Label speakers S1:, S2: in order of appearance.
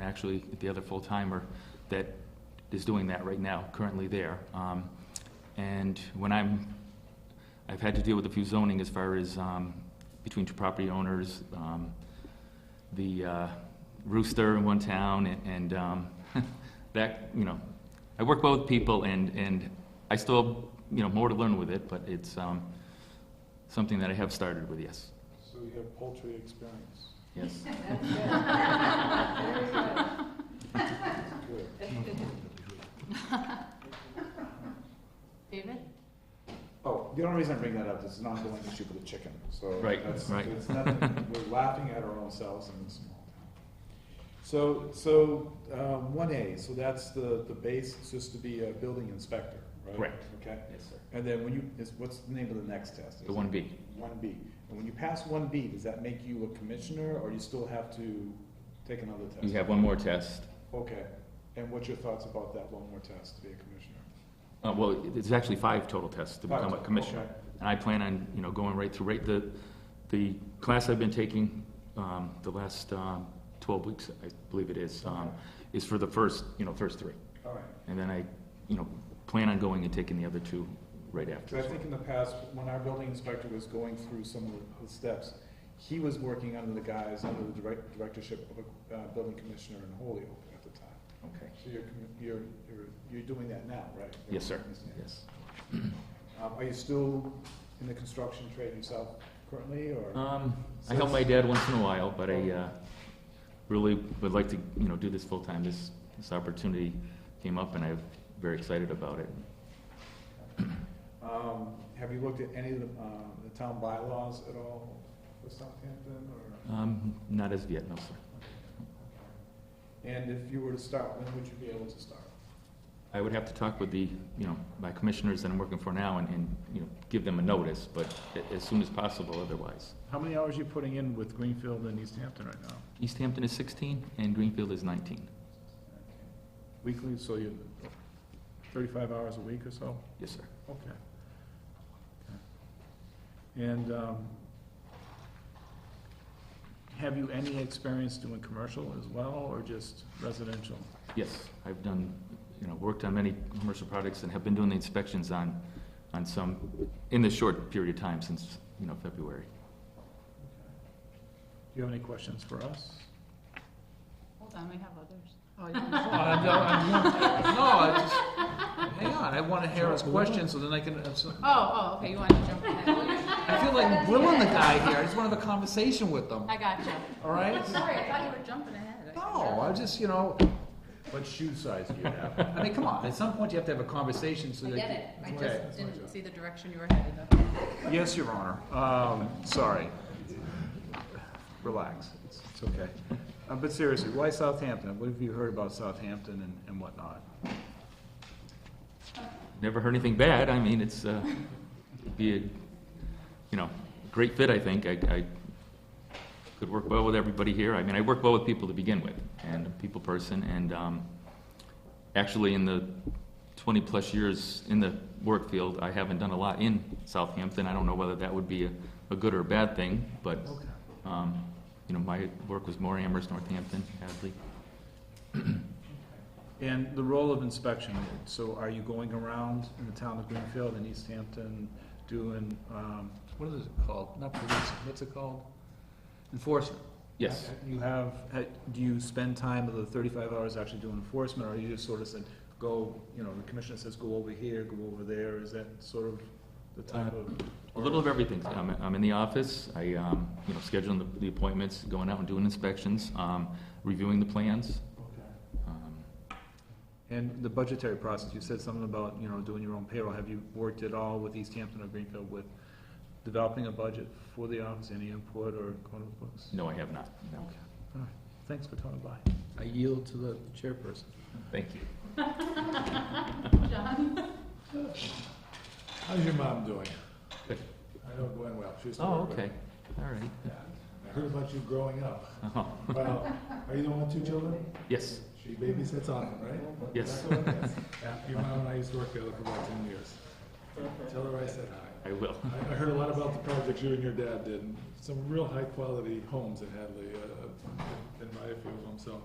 S1: actually the other full-timer that is doing that right now, currently there. Um, And when I'm, I've had to deal with a few zoning as far as um, between two property owners, um, the uh, rooster in one town, and- and um, that, you know, I work well with people, and, and I still, have, you know, more to learn with it, but it's um, something that I have started with, yes,
S2: So you have poultry experience.
S1: yes.
S2: Good.
S3: David?
S2: Oh, the only reason I bring that up is it's an ongoing issue with the chicken, so.
S1: Right,
S2: that's-
S1: right.
S2: It's nothing, we're laughing at our own selves in this small town. So, so, um, one A, so that's the, the base, it's just to be a building inspector, right?
S1: Correct.
S2: Okay,
S1: Yes, sir.
S2: and then when you, is, what's the name of the next test?
S1: The one B.
S2: One B, and when you pass one B, does that make you a commissioner, or you still have to take another test?
S1: You have one more test.
S2: Okay, and what's your thoughts about that one more test to be a commissioner?
S1: Uh, Well, it's actually five total tests to become a
S2: Five,
S1: commissioner.
S2: okay.
S1: And I plan on, you know, going right through, right, the, the class I've been taking, um, the last, um, twelve weeks, I believe it is, um, is for the first, you know, first three.
S2: All right.
S1: And then I, you know, plan on going and taking the other two right after.
S2: So I think in the past, when our building inspector was going through some of the steps, he was working under the guise, under the direct- directorship of a uh, building commissioner in Holyoke at the time.
S1: Okay.
S2: So you're, commi- you're, you're, you're doing that now, right?
S1: Yes, sir. Yes.
S2: Um, Are you still in the construction trade yourself currently, or?
S1: Um, I help my dad once in a while, but I, uh, really would like to, you know, do this full-time. This, this opportunity came up and I'm very excited about it.
S2: Um, Have you looked at any of the, uh, the town bylaws at all for Southampton, or?
S1: Um, not as of yet, no, sir.
S2: And if you were to start, when would you be able to start?
S1: I would have to talk with the, you know, my commissioners that I'm working for now and, and, you know, give them a notice, but a- as soon as possible otherwise.
S4: How many hours are you putting in with Greenfield and East Hampton right now?
S1: East Hampton is sixteen and Greenfield is nineteen.
S4: Weekly, so you, thirty-five hours a week or so?
S1: Yes, sir.
S4: Okay. And, um, have you any experience doing commercial as well, or just residential?
S1: Yes, I've done, you know, worked on many commercial products and have been doing the inspections on, on some, in this short period of time since, you know, February.
S4: Do you have any questions for us?
S3: Hold on, we have others.
S5: Oh, you- No, I don't- I'm- uh, no, I just, hang on, I wanna hear his question, so then I can, so-
S3: Oh, oh, okay, you want to jump ahead. Well, you-
S5: I feel like Will and the guy here, I just wanna have a conversation with them,
S3: I got you.
S5: all right?
S3: Sorry, I thought you were jumping ahead.
S5: No, I just, you know,
S4: What shoe size do you have?
S5: I mean, come on, at some point you have to have a conversation so
S3: I
S5: that.
S3: get it. I
S5: Okay.
S3: just didn't see the direction you were headed. Okay.
S4: Yes, Your Honor. Um, sorry. Relax. It's, it's okay. Uh, but seriously, why Southampton? What have you heard about Southampton and, and whatnot?
S1: Never heard anything bad, I mean, it's, uh, it'd be a, you know, great fit, I think. I, I could work well with everybody here. I mean, I work well with people to begin with, and a people person, and, um, actually, in the twenty-plus years in the work field, I haven't done a lot in Southampton. I don't know whether that would be a, a good or a bad thing, but,
S5: Okay.
S1: um, you know, my work was more Amherst, Northampton, Hadley.
S4: And the role of inspection, so are you going around in the town of Greenfield and East Hampton doing, um,
S5: What is it called? Not police, what's it called? Enforcement.
S1: Yes,
S4: You have, ha- do you spend time of the thirty-five hours actually doing enforcement, or you just sort of said, go, you know, the commissioner says, go over here, go over there, is that sort of the type of?
S1: A little of everything. I'm, I'm in the office, I, um, you know, scheduling the, the appointments, going out and doing inspections, um, reviewing the plans. Um,
S4: And the budgetary process, you said something about, you know, doing your own payroll, have you worked at all with East Hampton or Greenfield with developing a budget for the office, any input or going to the books?
S1: No, I have not, no.
S4: Okay, all right, thanks for coming by.
S5: I yield to the chairperson.
S1: Thank you.
S3: John?
S2: How's your mom doing?
S1: Good.
S2: I know going well, she's.
S1: Oh, okay, all right.
S2: I heard about you growing up.
S1: Uh-huh.
S2: Well, are you the one with two children?
S1: Yes,
S2: She babysits often, right?
S1: Yes.
S2: Yeah, Your mom and I used to work together for about ten years. Tell her I said hi.
S1: I will.
S2: I I heard a lot about the projects you and your dad did, and some real high-quality homes in Hadley, uh, in my field home, so